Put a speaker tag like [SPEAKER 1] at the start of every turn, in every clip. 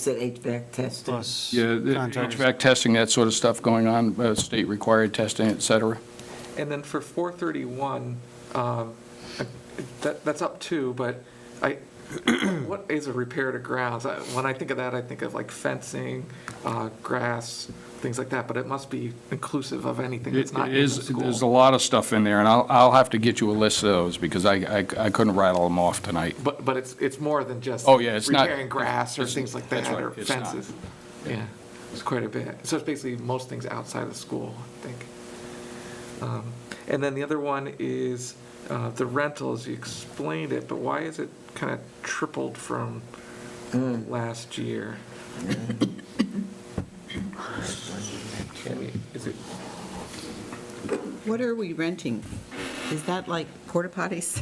[SPEAKER 1] said HVAC testing.
[SPEAKER 2] plus
[SPEAKER 3] Yeah, the
[SPEAKER 2] contractors.
[SPEAKER 3] HVAC testing, that sort of stuff going on, uh, state-required testing, et cetera.
[SPEAKER 4] And then for 431, um, that, that's up two, but I, what is a repair to grounds? I- When I think of that, I think of like fencing, uh, grass, things like that, but it must be inclusive of anything that's
[SPEAKER 3] It
[SPEAKER 4] not in the
[SPEAKER 3] is,
[SPEAKER 4] school.
[SPEAKER 3] there's a lot of stuff in there, and I'll, I'll have to get you a list of those, because I, I I couldn't rattle them off tonight.
[SPEAKER 4] But, but it's, it's more than just.
[SPEAKER 3] Oh, yeah, it's not-
[SPEAKER 4] Repairing grass or
[SPEAKER 3] it's-
[SPEAKER 4] things like
[SPEAKER 3] that's
[SPEAKER 4] that,
[SPEAKER 3] right,
[SPEAKER 4] or
[SPEAKER 3] it's not.
[SPEAKER 4] fences. Yeah, it's quite a bit. So it's basically most things outside of school, I think. Um, And then the other one is uh, the rentals, you explained it, but why is it kind of tripled from last year? Can we- Is it,
[SPEAKER 5] What are we renting? Is that like porta potties?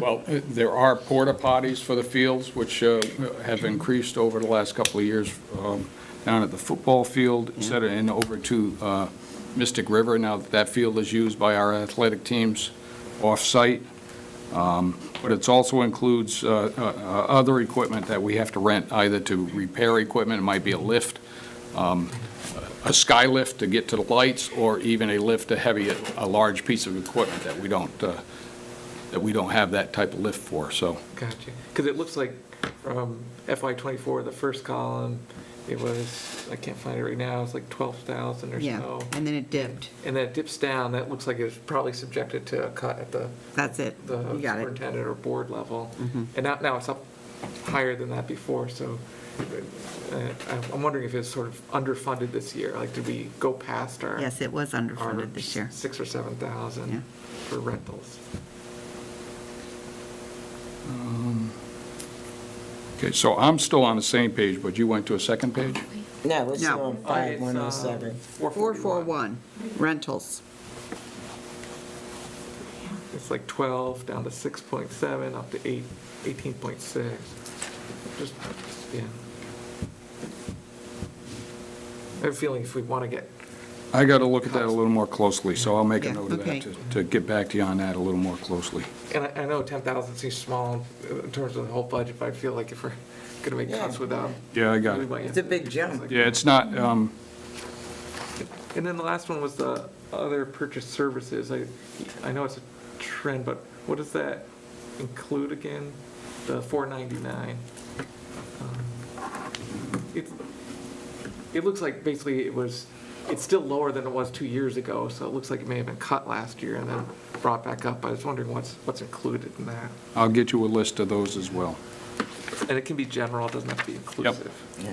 [SPEAKER 3] Well, uh, there are porta potties for the fields, which uh, have increased over the last couple of years um, down at the football field, et cetera, and over to uh, Mystic River. Now that that field is used by our athletic teams off-site. Um, But it's also includes uh, uh, uh, other equipment that we have to rent, either to repair equipment, it might be a lift, um, a sky lift to get to the lights, or even a lift to heavy, a large piece of equipment that we don't uh, that we don't have that type of lift for, so.
[SPEAKER 4] gotcha, because it looks like from FY twenty-four, the first column, it was, I can't find it right now, it's like twelve thousand or so.
[SPEAKER 5] Yeah, and then it dipped.
[SPEAKER 4] And then it dips down, that looks like it's probably subjected to a cut at the,
[SPEAKER 5] That's it.
[SPEAKER 4] the
[SPEAKER 5] You got it. Mm-hmm.
[SPEAKER 4] superintendent or board level. And now, now it's up higher than that before, so uh, I'm- I'm wondering if it's sort of underfunded this year, like, did we go past our?
[SPEAKER 5] Yes, it was
[SPEAKER 4] our
[SPEAKER 5] underfunded this year.
[SPEAKER 4] Six or seven
[SPEAKER 5] Yeah.
[SPEAKER 4] thousand for rentals.
[SPEAKER 3] Okay, so I'm still on the same page, but you went to a second page?
[SPEAKER 1] No, it's
[SPEAKER 5] No.
[SPEAKER 1] on five one oh seven.
[SPEAKER 4] uh, Four forty-one.
[SPEAKER 5] 441, rentals.
[SPEAKER 4] It's like twelve, down to six point seven, up to eight, eighteen point six. Just, yeah. I have a feeling if we want to get
[SPEAKER 3] I got to look at that a little more closely, so I'll make a
[SPEAKER 5] Yeah,
[SPEAKER 3] note of
[SPEAKER 5] okay.
[SPEAKER 3] that, to- to get back to you on that a little more closely.
[SPEAKER 4] And I, I know ten thousand seems small in terms of the whole budget, but I feel like if we're gonna make cuts
[SPEAKER 1] Yeah.
[SPEAKER 4] without.
[SPEAKER 3] Yeah, I got
[SPEAKER 4] we
[SPEAKER 3] it.
[SPEAKER 4] might have
[SPEAKER 1] It's a
[SPEAKER 4] to-
[SPEAKER 1] big jump.
[SPEAKER 3] Yeah, it's not, um,
[SPEAKER 4] And then the last one was the other purchase services. I, I know it's a trend, but what does that include again? The four ninety-nine? It, it looks like basically it was, it's still lower than it was two years ago, so it looks like it may have been cut last year and then brought back up. I was wondering what's, what's included in that.
[SPEAKER 3] I'll get you a list of those as well.
[SPEAKER 4] And it can be general, it doesn't have to be inclusive.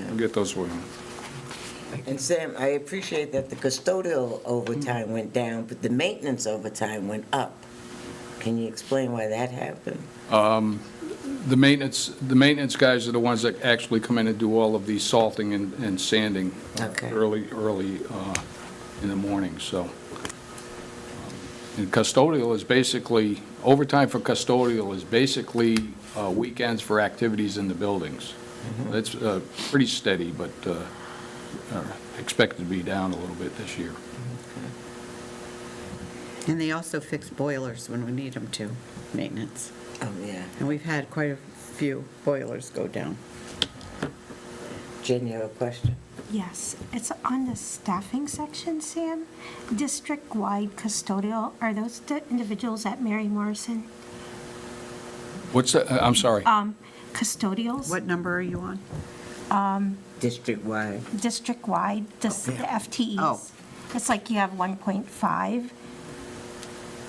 [SPEAKER 3] I'll get those for you.
[SPEAKER 1] And Sam, I appreciate that the custodial overtime went down, but the maintenance overtime went up. Can you explain why that happened?
[SPEAKER 3] The maintenance, the maintenance guys are the ones that actually come in and do all of the salting and and sanding uh,
[SPEAKER 1] Okay.
[SPEAKER 3] early, early uh, in the morning, so. And custodial is basically, overtime for custodial is basically uh, weekends for activities in the buildings. It's uh, pretty steady, but uh, uh, expected to be down a little bit this year.
[SPEAKER 5] And they also fix boilers when we need them to, maintenance.
[SPEAKER 1] Oh, yeah.
[SPEAKER 5] And we've had quite a few boilers go down.
[SPEAKER 1] Jen, you have a question?
[SPEAKER 6] Yes, it's on the staffing section, Sam. District-wide custodial, are those the individuals at Mary Morrison?
[SPEAKER 3] What's, that? Uh, I'm sorry.
[SPEAKER 6] Um, custodials?
[SPEAKER 5] What number are you on?
[SPEAKER 1] District-wide.
[SPEAKER 6] District-wide, the s- the FTEs.
[SPEAKER 5] Oh.
[SPEAKER 6] It's like you have 1.5.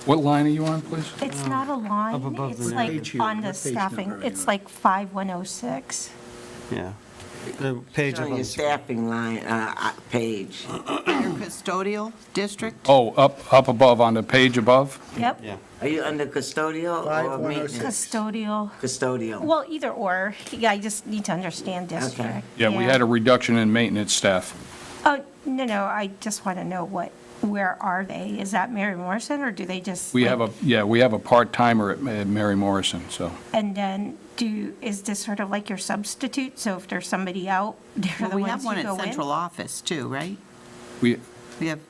[SPEAKER 3] What line are you on, please?
[SPEAKER 5] Oh.
[SPEAKER 6] It's not a line.
[SPEAKER 2] Up above the
[SPEAKER 6] It's
[SPEAKER 2] page
[SPEAKER 6] like
[SPEAKER 2] here,
[SPEAKER 6] on
[SPEAKER 2] what
[SPEAKER 6] the
[SPEAKER 2] page
[SPEAKER 6] staffing,
[SPEAKER 2] number are you
[SPEAKER 6] it's
[SPEAKER 2] on?
[SPEAKER 6] like 5106.
[SPEAKER 2] Yeah. The page up
[SPEAKER 1] On
[SPEAKER 2] on
[SPEAKER 1] your
[SPEAKER 2] the screen.
[SPEAKER 1] staffing line, uh, uh, page.
[SPEAKER 5] Your custodial district?
[SPEAKER 3] Oh, up, up above, on the page above?
[SPEAKER 6] Yep.
[SPEAKER 2] Yeah.
[SPEAKER 1] Are you under custodial or
[SPEAKER 2] oh
[SPEAKER 1] maintenance?
[SPEAKER 6] Custodial,
[SPEAKER 1] Custodial.
[SPEAKER 6] well, either or. Yeah, I just need to understand district.
[SPEAKER 3] Yeah, we had a reduction in maintenance staff.
[SPEAKER 6] Oh, no, no, I just want to know what, where are they? Is that Mary Morrison, or do they just?
[SPEAKER 3] We have a, yeah, we have a part-timer at at Mary Morrison, so.
[SPEAKER 6] And then do, is this sort of like your substitute? So if there's somebody out, they're
[SPEAKER 5] Well,
[SPEAKER 6] the
[SPEAKER 5] we have one
[SPEAKER 6] ones who
[SPEAKER 5] at
[SPEAKER 6] go
[SPEAKER 5] central
[SPEAKER 6] in?
[SPEAKER 5] office too, right?
[SPEAKER 3] We,
[SPEAKER 5] We have,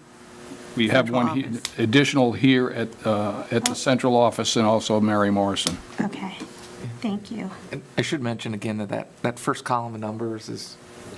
[SPEAKER 3] we have
[SPEAKER 5] Central
[SPEAKER 3] one he-
[SPEAKER 5] office.
[SPEAKER 3] additional here at, uh, at the central office and also Mary Morrison.
[SPEAKER 6] Okay, thank you.
[SPEAKER 4] And I should mention again that that, that first column of numbers is